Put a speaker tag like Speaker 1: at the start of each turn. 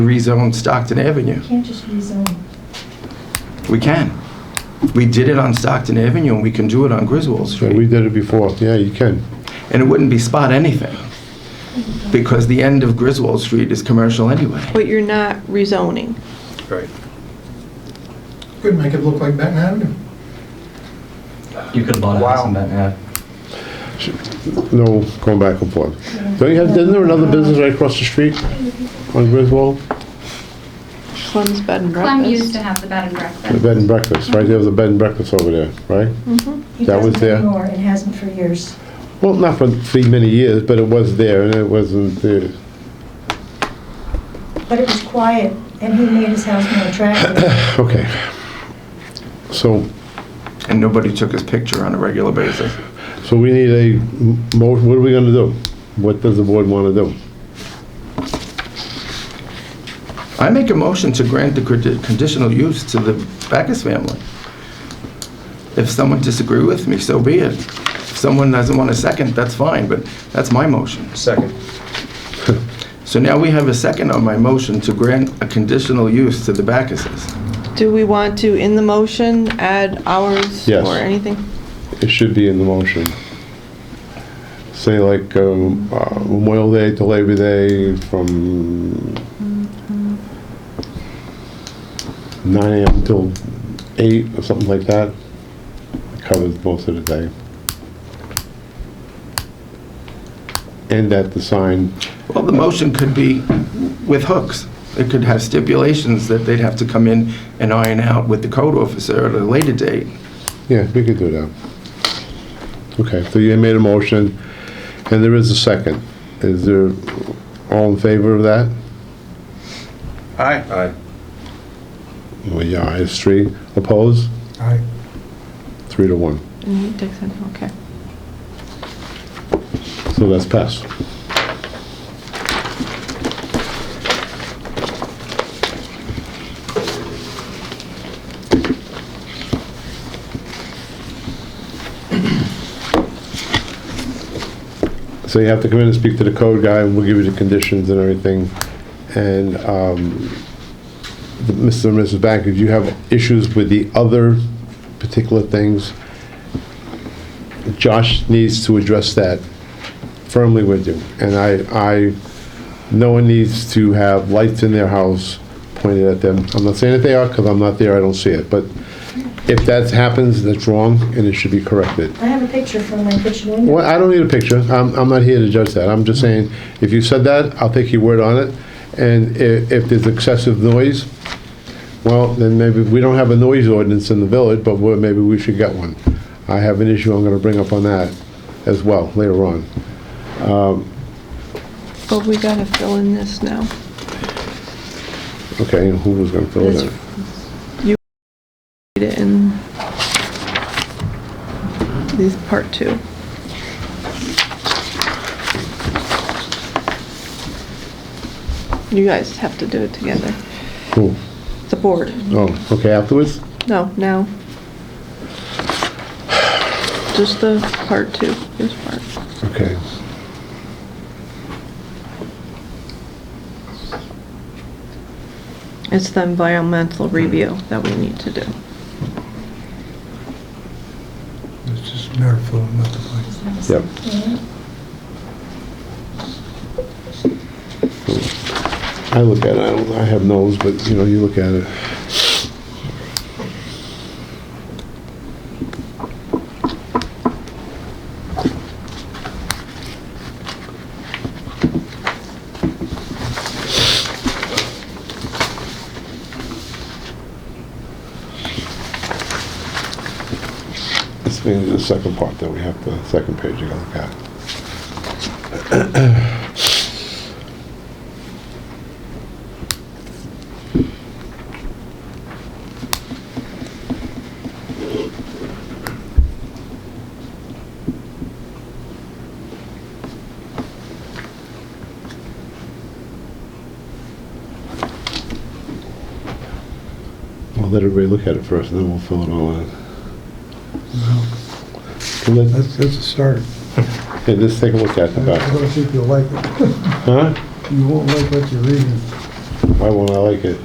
Speaker 1: rezone Stockton Avenue.
Speaker 2: Can't just rezone.
Speaker 1: We can. We did it on Stockton Avenue, and we can do it on Griswold
Speaker 3: Yeah,
Speaker 1: Street.
Speaker 3: we did it before, yeah, you can.
Speaker 1: And it wouldn't be spot anything, because the end of Griswold Street is commercial anyway.
Speaker 4: But you're not rezoning.
Speaker 5: Right.
Speaker 6: Could make it look like Benton Avenue.
Speaker 7: You could have bought a house in Benton Ave.
Speaker 3: No, going back and forth. Don't you have, isn't there another business right across the street on Griswold?
Speaker 4: Clem's Bed and Breakfast.
Speaker 8: Clem used to have the bed and
Speaker 3: The
Speaker 8: breakfast.
Speaker 3: bed and breakfast, right? There was a bed and breakfast over there, right?
Speaker 2: It
Speaker 3: That was
Speaker 2: doesn't
Speaker 3: there.
Speaker 2: anymore. It hasn't for years.
Speaker 3: Well, not for three many years, but it was there and it wasn't there.
Speaker 2: But it was quiet, and he made his house more attractive.
Speaker 3: Okay. So,
Speaker 1: And nobody took his picture on a regular basis.
Speaker 3: so we need a mo, what are we gonna do? What does the board wanna do?
Speaker 1: I make a motion to grant the condi- conditional use to the Backus family. If someone disagree with me, so be it. If someone doesn't want a second, that's fine, but that's my motion.
Speaker 5: Second.
Speaker 1: So now we have a second on my motion to grant a conditional use to the Backuses.
Speaker 4: Do we want to, in the motion, add hours
Speaker 3: Yes.
Speaker 4: or anything?
Speaker 3: It should be in the motion. Say like, um, uh, Memorial Day to Labor Day from nine AM till eight or something like that. Covers most of the day. And at the sign,
Speaker 1: Well, the motion could be with hooks. It could have stipulations that they'd have to come in and iron out with the code officer at a later date.
Speaker 3: yeah, we could do that. Okay, so you made a motion, and there is a second. Is there, all in favor of that?
Speaker 5: Aye. Aye.
Speaker 3: Well, yeah, it's three opposed,
Speaker 6: Aye.
Speaker 3: three to one.
Speaker 4: Mm, Dixon, okay.
Speaker 3: So that's passed. So you have to come in and speak to the code guy, and we'll give you the conditions and everything. And um, the- Mr. and Mrs. Banker, do you have issues with the other particular things? Josh needs to address that firmly with you. And I, I, no one needs to have lights in their house pointed at them. I'm not saying that they are, because I'm not there, I don't see it, but if that happens, that's wrong, and it should be corrected.
Speaker 2: I have a picture from my kitchen window.
Speaker 3: Well, I don't need a picture, I'm, I'm not here to judge that, I'm just saying, if you said that, I'll take your word on it, and if, if there's excessive noise, well, then maybe, we don't have a noise ordinance in the village, but well, maybe we should get one. I have an issue I'm gonna bring up on that as well, later on. Um,
Speaker 4: But we gotta fill in this now.
Speaker 3: Okay, and who was gonna fill it
Speaker 4: This-
Speaker 3: in?
Speaker 4: You read it in this part two. You guys have to do it together.
Speaker 3: Who?
Speaker 4: The board.
Speaker 3: Oh, okay, afterwards?
Speaker 4: No, now. Just the part two, this part.
Speaker 3: Okay.
Speaker 4: It's the environmental review that we need to do.
Speaker 6: It's just miracle, not the place.
Speaker 3: Yep.
Speaker 2: Yeah.
Speaker 3: I look at it, I don't, I have nose, but, you know, you look at it. This means the second part that we have, the second page you gotta look at. I'll let everybody look at it first, and then we'll fill it all in. Well, let-
Speaker 6: That's, that's a start.
Speaker 3: Yeah, just take a look at the
Speaker 6: I
Speaker 3: back.
Speaker 6: don't think you'll like it.
Speaker 3: Huh?
Speaker 6: You won't like what you're reading.
Speaker 3: Why won't I like it?